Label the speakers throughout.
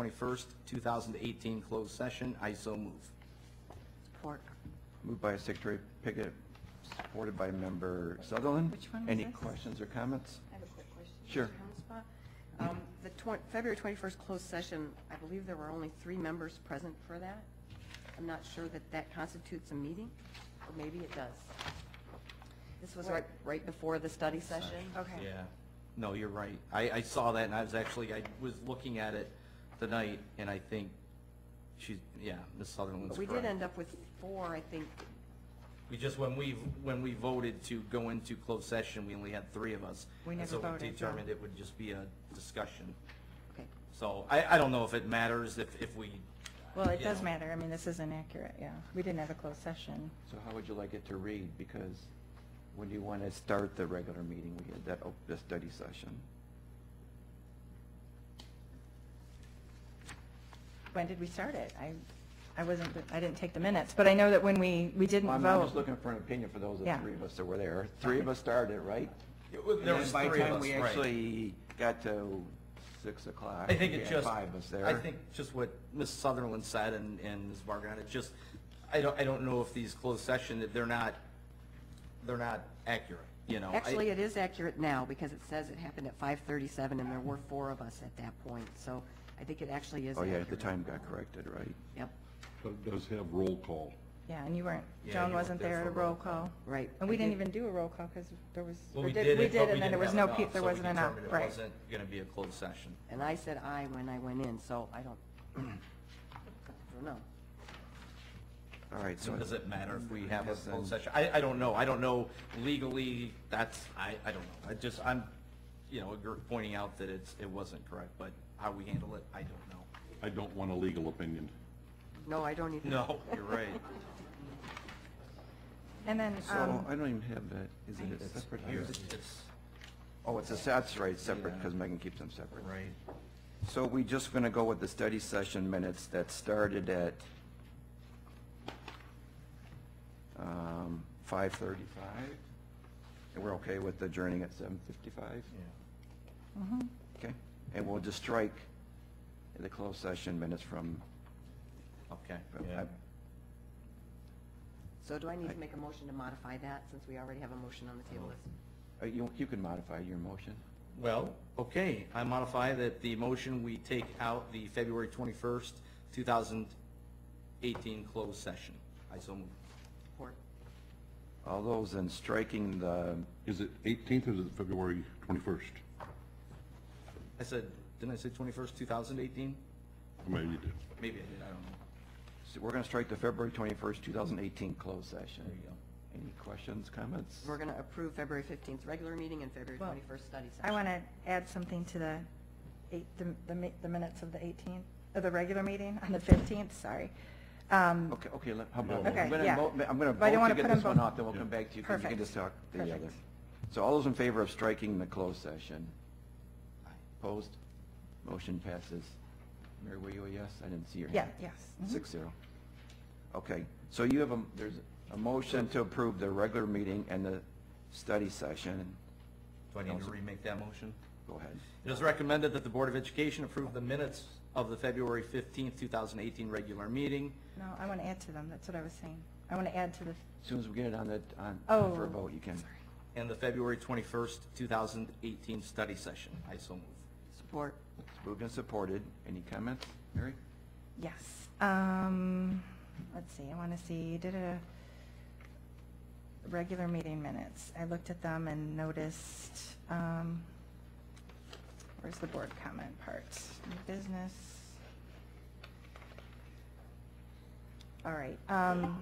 Speaker 1: 21st, 2018, closed session. I so move.
Speaker 2: Support.
Speaker 3: Moved by Secretary Pickett, supported by Member Sutherland.
Speaker 2: Which one was
Speaker 3: Any
Speaker 2: this?
Speaker 3: questions or comments?
Speaker 2: I have a quick question.
Speaker 3: Sure.
Speaker 2: Mr. Hanspach. Um, The twen- February 21st closed session, I believe there were only three members present for that. I'm not sure that that constitutes a meeting, or maybe it does. This was right, right before the study session.
Speaker 4: Okay.
Speaker 1: Yeah. No, you're right. I, I saw that and I was actually, I was looking at it tonight and I think she's, yeah, Ms. Sutherland's
Speaker 2: But
Speaker 1: correct.
Speaker 2: we did end up with four, I think.
Speaker 1: We just, when we, when we voted to go into closed session, we only had three of us.
Speaker 4: We
Speaker 1: And
Speaker 4: never
Speaker 1: So we
Speaker 4: voted, no.
Speaker 1: determined it would just be a discussion.
Speaker 2: Okay.
Speaker 1: So I, I don't know if it matters if, if we.
Speaker 4: Well, it
Speaker 1: you
Speaker 4: does
Speaker 1: know.
Speaker 4: matter. I mean, this isn't accurate, yeah. We didn't have a closed session.
Speaker 3: So how would you like it to read? Because when you want to start the regular meeting, we had that, op- the study session.
Speaker 4: When did we start it? I, I wasn't, I didn't take the minutes, but I know that when we, we didn't
Speaker 3: Well, I'm I'm just
Speaker 4: vote.
Speaker 3: looking for an opinion for those of the
Speaker 4: Yeah.
Speaker 3: three of us that were there. Three of us started, right?
Speaker 1: It was- There
Speaker 3: And
Speaker 1: was
Speaker 3: then
Speaker 1: three of us,
Speaker 3: By the time
Speaker 1: right.
Speaker 3: we actually got to six o'clock.
Speaker 1: I think
Speaker 3: we
Speaker 1: it
Speaker 3: had
Speaker 1: just.
Speaker 3: Five of us there.
Speaker 1: I think just what Ms. Sutherland said and, and Ms. Vargon, it's just, I don't, I don't know if these closed session, that they're not, they're not accurate, you know? I-
Speaker 2: Actually, it is accurate now, because it says it happened at 5:37, and there were four of us at that point, so I think it actually is
Speaker 3: Oh, yeah,
Speaker 2: accurate.
Speaker 3: the time got corrected, right?
Speaker 2: Yep,
Speaker 5: But it does have roll call.
Speaker 4: Yeah, and you weren't,
Speaker 1: Yeah, you
Speaker 4: Joan
Speaker 1: weren't
Speaker 4: wasn't
Speaker 1: there
Speaker 4: there at
Speaker 1: for
Speaker 4: a roll call.
Speaker 2: right.
Speaker 4: And we
Speaker 2: I
Speaker 4: didn't
Speaker 2: did-
Speaker 4: even do a roll call because there was,
Speaker 1: Well,
Speaker 4: or
Speaker 1: we
Speaker 4: did-
Speaker 1: did
Speaker 4: we
Speaker 1: it, but
Speaker 4: did,
Speaker 1: we
Speaker 4: and then there
Speaker 1: didn't
Speaker 4: was
Speaker 1: have
Speaker 4: no,
Speaker 1: enough,
Speaker 4: pe- there
Speaker 1: so we
Speaker 4: wasn't enough,
Speaker 1: determined It
Speaker 4: right.
Speaker 1: wasn't gonna be a closed session.
Speaker 2: And I said aye when I went in, so I don't, I don't know.
Speaker 3: All right,
Speaker 1: So
Speaker 3: so.
Speaker 1: does it matter if we have a
Speaker 3: Yes,
Speaker 1: closed
Speaker 3: then.
Speaker 1: session? I, I don't know. I don't know legally, that's, I, I don't know. I just, I'm, you know, you're pointing out that it's, it wasn't correct, but how we handle it, I don't know.
Speaker 5: I don't want a legal opinion.
Speaker 2: No, I don't even.
Speaker 1: No, you're right.
Speaker 4: And then,
Speaker 3: So, I
Speaker 4: um,
Speaker 3: don't even have that, is it a separate here?
Speaker 1: It's,
Speaker 3: Oh, it's a, that's right, separate,
Speaker 1: Yeah.
Speaker 3: because Megan keeps them separate.
Speaker 1: right.
Speaker 3: So we just going to go with the study session minutes that started at um, 5:35? And we're okay with adjourning at 7:55? Okay, and we'll just strike the closed session minutes from,
Speaker 1: Okay.
Speaker 3: from-
Speaker 1: yeah.
Speaker 2: So do I need to make a motion to modify that, since we already have a motion on the table?
Speaker 3: uh, you you can modify your motion.
Speaker 1: Well, okay, I modify that the motion, we take out the February twenty-first, two thousand eighteen closed session. I so move.
Speaker 2: Support.
Speaker 3: All those in striking the,
Speaker 5: Is it 18th or is it February 21st?
Speaker 1: I said, didn't I say twenty-first, two thousand eighteen?
Speaker 5: Maybe you did.
Speaker 1: Maybe I did, I don't know.
Speaker 3: so we're going to strike the February 21st, 2018 closed session.
Speaker 1: There you go.
Speaker 3: Any questions, comments?
Speaker 2: We're going to approve February 15th regular meeting and February
Speaker 4: Well,
Speaker 2: 21st study session.
Speaker 4: I want to add something to the eight, the, the mi- the minutes of the 18th, of the regular meeting on the 15th, sorry. Um,
Speaker 3: Okay, okay, let- how about,
Speaker 5: Okay,
Speaker 3: I'm gonna
Speaker 4: yeah.
Speaker 3: vote, I'm gonna
Speaker 4: But I don't
Speaker 3: vote
Speaker 4: wanna
Speaker 3: to get
Speaker 4: put 'em
Speaker 3: this one
Speaker 4: both-
Speaker 3: off, then we'll come
Speaker 5: Yeah.
Speaker 3: back to you, 'cause you can
Speaker 4: Perfect.
Speaker 3: just talk the other.
Speaker 4: Perfect.
Speaker 3: So all those in favor of striking the closed session? Opposed? Motion passes. Mary, were you a yes? I didn't see your
Speaker 4: Yeah,
Speaker 3: hand.
Speaker 4: yes. mhm.
Speaker 3: Six zero. Okay, so you have a, there's a motion to approve the regular meeting and the study session.
Speaker 1: Do I need to remake that motion?
Speaker 3: Go ahead.
Speaker 1: It is recommended that the Board of Education approve the minutes of the February fifteenth, two thousand eighteen regular meeting.
Speaker 4: No, I want to add to them, that's what I was saying. I want to add to the,
Speaker 3: As Soon as we get it on the, on,
Speaker 4: Oh,
Speaker 3: for a vote, you can.
Speaker 1: And the February twenty-first, two thousand eighteen study session. I so move.
Speaker 2: Support.
Speaker 3: It's Moved and supported. Any comments, Mary?
Speaker 4: yes. Um, let's see, I want to see, did a regular meeting minutes. I looked at them and noticed, um, where's the board comment part? New business. All right, um,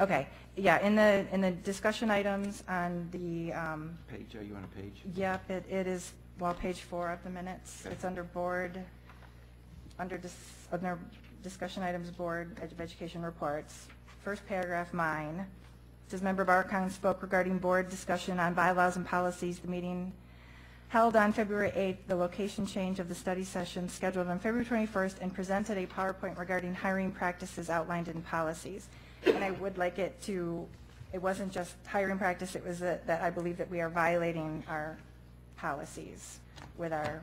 Speaker 4: Okay, yeah, in the, in the discussion items on the, um,
Speaker 3: Page, are you on a page?
Speaker 4: yep, it, it is, well, page four of the minutes. It's under board, under dis, under discussion items, Board of Education reports. First paragraph, mine, says member Barcon spoke regarding board discussion on bylaws and policies, the meeting held on February 8th, the location change of the study session scheduled on February 21st, and presented a PowerPoint regarding hiring practices outlined in policies. And I would like it to, it wasn't just hiring practice, it was that that I believe that we are violating our policies with our